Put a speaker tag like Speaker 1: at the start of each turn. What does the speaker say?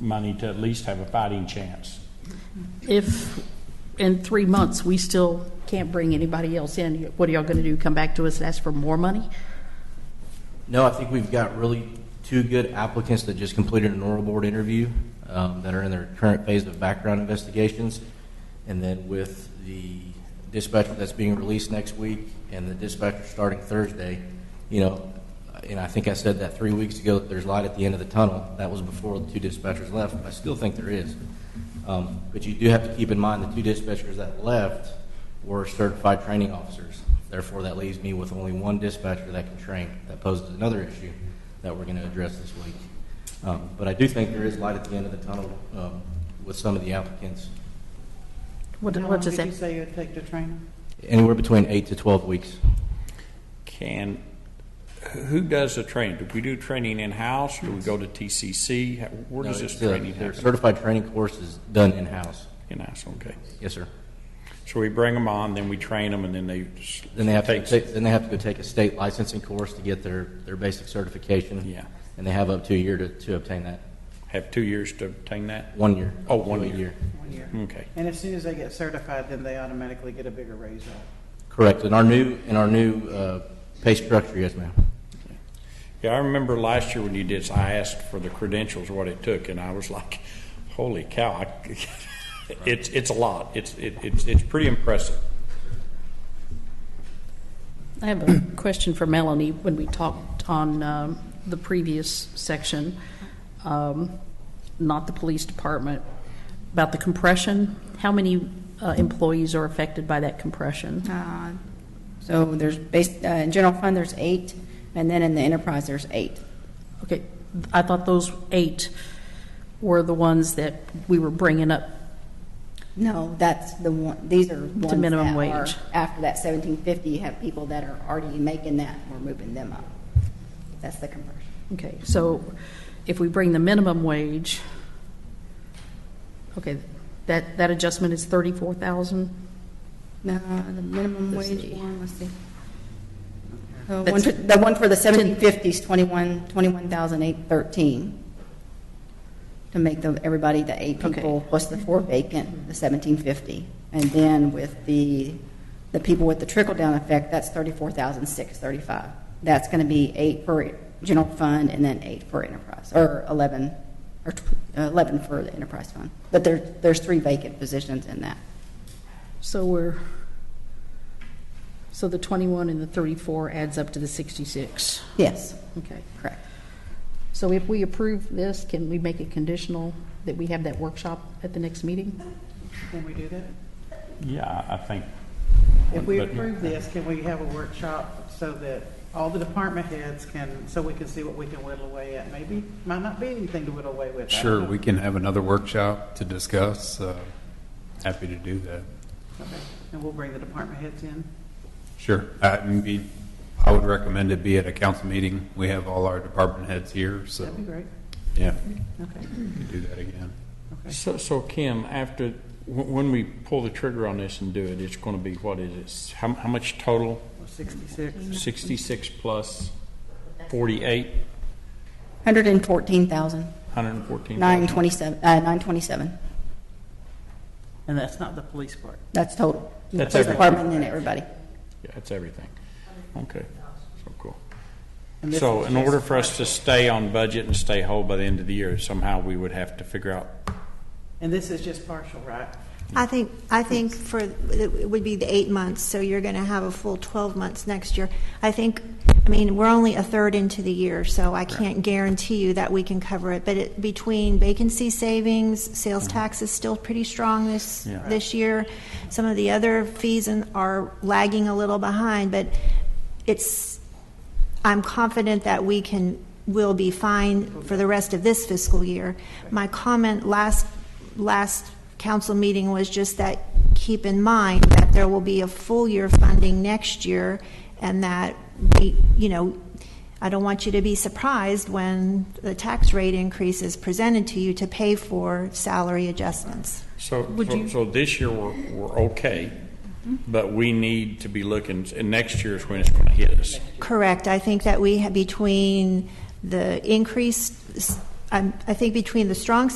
Speaker 1: money to at least have a fighting chance.
Speaker 2: If in three months we still can't bring anybody else in, what are y'all going to do? Come back to us and ask for more money?
Speaker 3: No, I think we've got really two good applicants that just completed an oral board interview um, that are in their current phase of background investigations. And then with the dispatcher that's being released next week and the dispatcher starting Thursday, you know, and I think I said that three weeks ago, that there's light at the end of the tunnel. That was before the two dispatchers left. I still think there is. Um, But you do have to keep in mind the two dispatchers that left were certified training officers. Therefore, that leaves me with only one dispatcher that can train. That poses another issue that we're going to address this week. Um, But I do think there is light at the end of the tunnel um, with some of the applicants.
Speaker 2: What
Speaker 4: How
Speaker 2: what
Speaker 4: long
Speaker 2: does
Speaker 4: did you
Speaker 2: that?
Speaker 4: say it'd take to train them?
Speaker 3: Anywhere between eight to 12 weeks.
Speaker 1: Can, who does the training? Do we do training in-house? Do we go to TCC? How- Where does
Speaker 3: No,
Speaker 1: this
Speaker 3: it's, uh,
Speaker 1: training
Speaker 3: Their
Speaker 1: happen?
Speaker 3: certified training course is done in-house.
Speaker 1: In-house, okay.
Speaker 3: Yes, sir.
Speaker 1: So we bring them on, then we train them, and then they. s-
Speaker 3: Then they have to,
Speaker 1: take-
Speaker 3: take- then they have to go take a state licensing course to get their, their basic certification.
Speaker 1: Yeah.
Speaker 3: And they have up to a year to, to obtain that.
Speaker 1: Have two years to obtain that?
Speaker 3: One year.
Speaker 1: Oh,
Speaker 3: Up to
Speaker 1: one
Speaker 3: a
Speaker 1: year.
Speaker 4: One year.
Speaker 1: Okay.
Speaker 4: And as soon as they get certified, then they automatically get a bigger raise up.
Speaker 3: Correct. In our new, in our new uh, pay structure, yes, ma'am.
Speaker 1: Yeah, I remember last year when you did, this, I asked for the credentials, what it took, and I was like, holy cow, I, it's, it's a lot. It's, it- it's, it's pretty impressive.
Speaker 2: I have a question for Melanie. When we talked on um, the previous section, um, not the police department, about the compression, how many uh, employees are affected by that compression?
Speaker 5: Uh, So there's, bas- uh, in general fund, there's eight, and then in the enterprise, there's eight.
Speaker 2: Okay, I thought those eight were the ones that we were bringing up
Speaker 5: No, that's the one, these are ones that
Speaker 2: minimum
Speaker 5: are-
Speaker 2: wage.
Speaker 5: After that seventeen fifty, you have people that are already making that, we're moving them up. That's the conversion.
Speaker 2: Okay, so if we bring the minimum wage, okay, that, that adjustment is 34,000?
Speaker 5: No, Uh, the minimum
Speaker 2: Let's see.
Speaker 5: wage one, let's see. The
Speaker 2: That's-
Speaker 5: one, for- the one for the seventeen fifties, twenty-one, twenty-one thousand eight thirteen. To make the, everybody, the eight
Speaker 2: Okay.
Speaker 5: people, plus the four vacant, the seventeen fifty. And then with the, the people with the trickle-down effect, that's thirty-four thousand six thirty-five. That's gonna be eight for general fund and then eight for enterprise, or eleven, or tw- uh, eleven for the enterprise fund. But there, there's three vacant positions in that.
Speaker 2: So we're, so the 21 and the 34 adds up to the 66?
Speaker 5: Yes,
Speaker 2: Okay.
Speaker 5: correct.
Speaker 2: So if we approve this, can we make it conditional that we have that workshop at the next meeting?
Speaker 4: Can we do that?
Speaker 1: Yeah, I think.
Speaker 4: If we
Speaker 1: But-
Speaker 4: approve this, can we have a workshop so that all the department heads can, so we can see what we can whittle away at? Maybe, might not be anything to whittle away with. I don't
Speaker 6: Sure,
Speaker 4: know.
Speaker 6: we can have another workshop to discuss. uh, Happy to do that.
Speaker 4: Okay. And we'll bring the department heads in.
Speaker 6: Sure. I it'd be- I would recommend it be at a council meeting. We have all our department heads here, so,
Speaker 4: That'd be great.
Speaker 6: yeah,
Speaker 4: Okay,
Speaker 6: we can do that again.
Speaker 4: okay.
Speaker 1: So, so Kim, after, when when we pull the trigger on this and do it, it's going to be, what is it? S- How, how much total?
Speaker 4: Well, Sixty-six.
Speaker 1: 66 plus 48,
Speaker 5: Hundred and fourteen thousand,
Speaker 1: 114.
Speaker 5: nine twenty-seven, uh, nine twenty-seven.
Speaker 4: And that's not the police part.
Speaker 5: That's total.
Speaker 1: That's
Speaker 5: Police
Speaker 1: everything.
Speaker 5: department and everybody.
Speaker 1: Yeah, that's everything. Okay, so cool.
Speaker 4: And this
Speaker 1: So
Speaker 4: is
Speaker 1: in
Speaker 4: just
Speaker 1: order for us to stay on budget and stay whole by the end of the year, somehow we would have to figure out,
Speaker 4: And this is just partial, right?
Speaker 7: I think, I think for, it would be the eight months, so you're going to have a full 12 months next year. I think, I mean, we're only a third into the year, so I can't guarantee you that we can cover it. But it- between vacancy savings, sales tax is still pretty strong this,
Speaker 1: Yeah.
Speaker 7: this year. Some of the other fees and- are lagging a little behind, but it's, I'm confident that we can, will be fine for the rest of this fiscal year. My comment last, last council meeting was just that, keep in mind that there will be a full year funding next year, and that, we, you know, I don't want you to be surprised when the tax rate increase is presented to you to pay for salary adjustments.
Speaker 1: so,
Speaker 2: Would
Speaker 1: so-
Speaker 2: you- Mm-hmm.
Speaker 1: so this year we're, we're okay, but we need to be looking, and next year is when it's going to hit us.
Speaker 7: Correct. I think that we have, between the increased s- I'm, I think between the strong